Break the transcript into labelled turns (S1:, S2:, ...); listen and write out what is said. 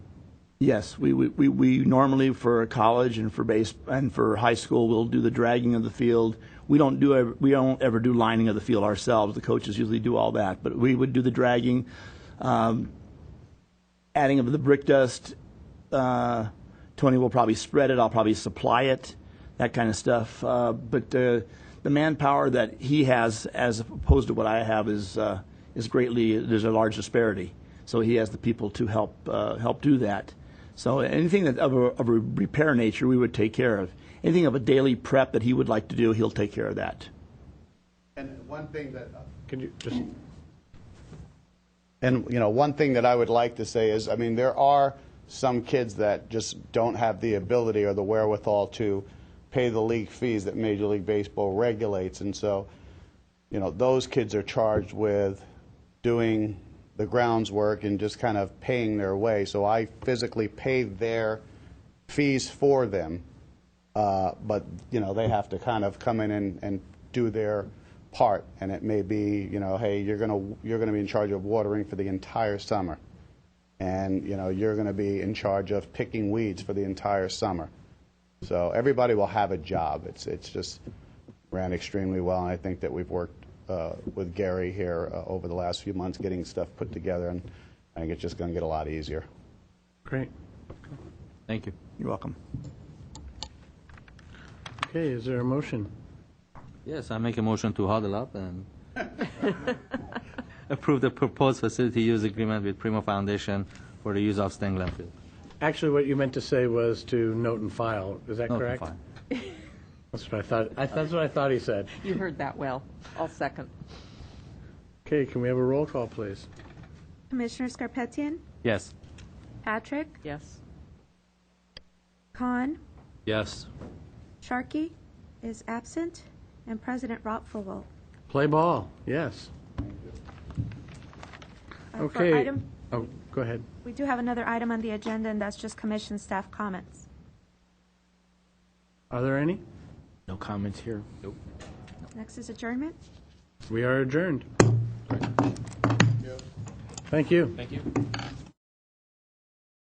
S1: Yes, we, we, we, we normally for college and for base and for high school, we'll do the dragging of the field. We don't do ev- we don't ever do lining of the field ourselves. The coaches usually do all that, but we would do the dragging, um, adding of the brick dust. Uh, Tony will probably spread it. I'll probably supply it, that kind of stuff. Uh, but uh, the manpower that he has, as opposed to what I have, is uh, is greatly there's a large disparity. So he has the people to help uh, help do that. So anything that of a, of a repair nature, we would take care of. Anything of a daily prep that he would like to do, he'll take care of that.
S2: And one thing that, uh,
S3: Can you just,
S2: and, you know, one thing that I would like to say is, I mean, there are some kids that just don't have the ability or the wherewithal to pay the league fees that Major League Baseball regulates. And so, you know, those kids are charged with doing the grounds work and just kind of paying their way. So I physically pay their fees for them. Uh, but, you know, they have to kind of come in and, and do their part. And it may be, you know, hey, you're going to, you're going to be in charge of watering for the entire summer. And, you know, you're going to be in charge of picking weeds for the entire summer. So everybody will have a job. It's, it's just ran extremely well. And I think that we've worked uh, with Gary here uh, over the last few months getting stuff put together. And I think it's just going to get a lot easier.
S3: great.
S4: Thank you.
S1: You're welcome.
S3: Okay, is there a motion?
S4: Yes, I make a motion to huddle up and approve the proposed facility use agreement with Primo Foundation for the use of Stingland Field.
S3: Actually, what you meant to say was to note and file, is that
S4: No, it's
S3: correct?
S4: fine.
S3: That's what I thought, I- that's what I thought he said.
S5: You heard that well. I'll second.
S3: Okay, can we have a roll call, please?
S6: Commissioner Scarpetian,
S4: Yes.
S6: Patrick,
S5: Yes.
S6: Khan,
S4: Yes.
S6: Sharkey is absent, and President Rottfogel.
S3: Play ball, yes.
S6: Uh, for
S3: Okay.
S6: item-
S3: Oh, go ahead.
S6: We do have another item on the agenda, and that's just commission staff comments.
S3: Are there any?
S4: No comments here.
S6: Next is adjournment.
S3: We are adjourned. Thank you. Thank you.